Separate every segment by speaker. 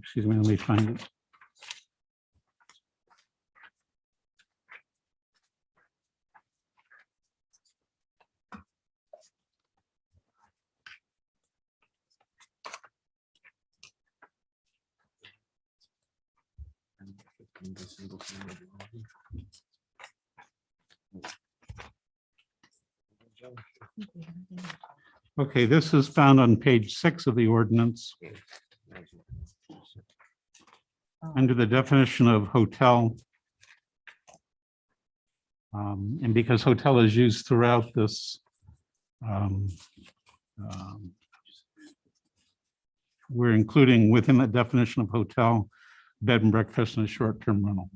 Speaker 1: Excuse me, let me find it. Okay, this is found on page six of the ordinance. Under the definition of hotel. um, And because hotel is used throughout this. um, um, We're including within the definition of hotel, bed and breakfast and a short-term rental.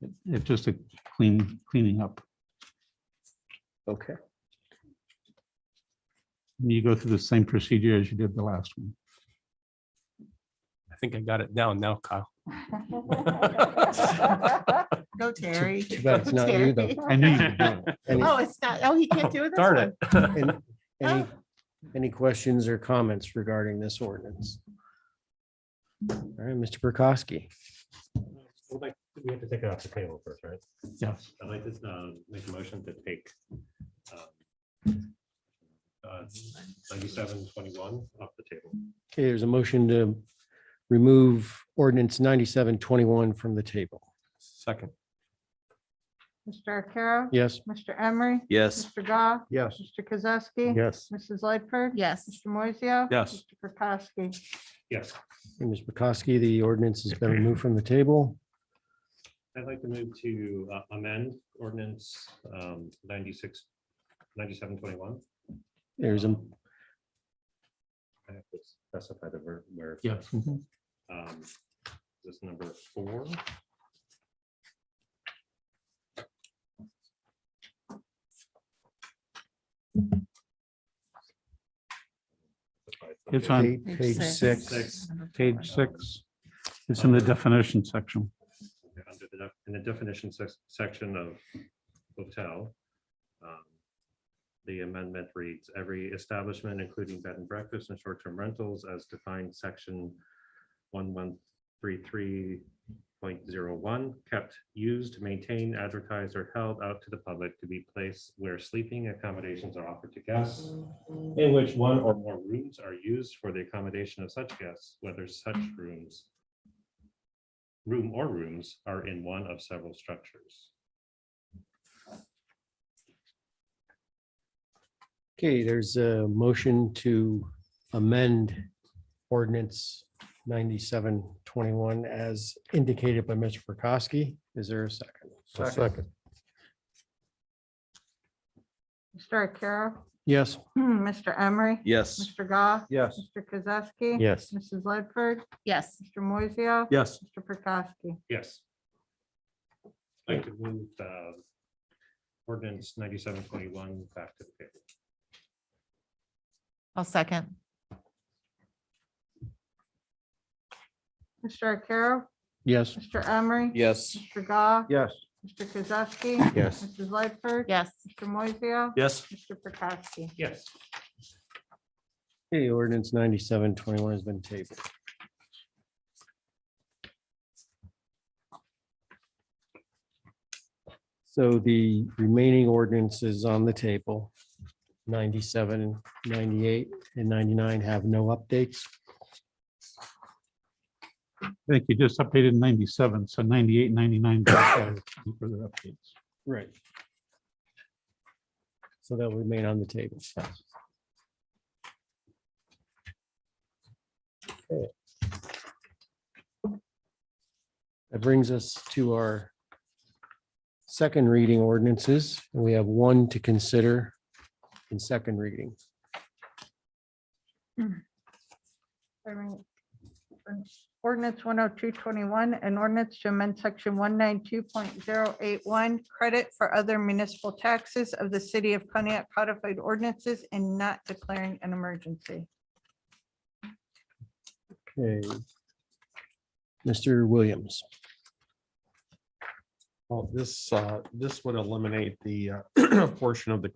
Speaker 1: It- It's just a clean, cleaning up.
Speaker 2: Okay.
Speaker 1: You go through the same procedure as you did the last one.
Speaker 3: I think I got it down now, Kyle.
Speaker 4: Go Terry.
Speaker 2: too bad it's
Speaker 4: Go,
Speaker 2: not you, though.
Speaker 4: Terry.
Speaker 1: I knew you were doing it.
Speaker 2: Any-
Speaker 4: Oh, it's not, oh, he can't do it. this
Speaker 3: Darn
Speaker 4: one.
Speaker 3: it.
Speaker 2: any- Any, any questions or comments regarding this ordinance? All right, Mr. Prokowski.
Speaker 5: Well, like, We have to take it off the table first, right?
Speaker 1: Yes.
Speaker 5: I'd like to uh, make a motion to take um, uh, ninety-seven twenty-one off the table.
Speaker 2: Okay, there's a motion to remove ordinance ninety-seven twenty-one from the table.
Speaker 3: Second,
Speaker 6: Mr. Arcaro?
Speaker 2: Yes?
Speaker 6: Mr. Emery?
Speaker 7: Yes.
Speaker 6: Mr. Goff?
Speaker 2: Yes.
Speaker 6: Mr. Kozowski?
Speaker 2: Yes.
Speaker 6: Mrs. Lightford?
Speaker 4: Yes,
Speaker 6: Mr. Moiseo?
Speaker 3: Yes.
Speaker 6: Mr. Prokowski?
Speaker 5: Yes,
Speaker 2: Ms. Prokowski, the ordinance has been removed from the table.
Speaker 5: I'd like to move to uh, amend ordinance um, 96, 9721.
Speaker 2: There's a,
Speaker 5: Um, I have to specify the ver- where.
Speaker 1: Yes. mhm.
Speaker 5: Um, This number four.
Speaker 1: It's on
Speaker 2: page page six.
Speaker 5: Six.
Speaker 1: Page six. It's in the definition section.
Speaker 5: under the def- In the definition sec- section of hotel, um, the amendment reads, every establishment, including bed and breakfast and short-term rentals as defined section one one three three point zero one, kept, used, maintained, advertised, or held out to the public to be placed where sleeping accommodations are offered to guests, in which one or more rooms are used for the accommodation of such guests, whether such rooms room or rooms are in one of several structures.
Speaker 2: Okay, there's a motion to amend ordinance ninety-seven twenty-one as indicated by Mr. Prokowski. Is there a second? Second.
Speaker 6: Mr. Arcaro?
Speaker 2: Yes.
Speaker 6: Mr. Emery?
Speaker 7: Yes.
Speaker 6: Mr. Goff?
Speaker 2: Yes.
Speaker 6: Mr. Kozowski?
Speaker 2: Yes.
Speaker 6: Mrs. Lightford?
Speaker 4: yes.
Speaker 6: Mr. Moiseo?
Speaker 3: yes.
Speaker 6: Mr. Prokowski?
Speaker 5: Yes. I'd like to move uh, ordinance ninety-seven twenty-one back to the table.
Speaker 4: I'll second.
Speaker 6: Mr. Arcaro?
Speaker 2: Yes.
Speaker 6: Mr. Emery?
Speaker 7: Yes.
Speaker 6: Mr. Goff?
Speaker 2: Yes.
Speaker 6: Mr. Kozowski?
Speaker 2: Yes.
Speaker 6: Mrs. Lightford?
Speaker 4: Yes,
Speaker 6: Mr. Moiseo?
Speaker 3: Yes.
Speaker 6: Mr. Prokowski?
Speaker 5: Yes,
Speaker 2: Okay, ordinance ninety-seven twenty-one has been tabled. So the remaining ordinances on the table, 97, 98, and ninety-nine have no updates.
Speaker 1: I think you just updated ninety-seven, so 98, 99. Further updates.
Speaker 2: Right. So that will remain on the table. Okay. That brings us to our second reading ordinances. and We have one to consider in second reading.
Speaker 6: I mean, um, Ordinance one oh two twenty-one, an ordinance to amend section one nine two point zero eight one, credit for other municipal taxes of the city of Pontiac codified ordinances and not declaring an emergency.
Speaker 2: Okay. Mr. Williams.
Speaker 8: Well, this, uh, this would eliminate the uh, portion of the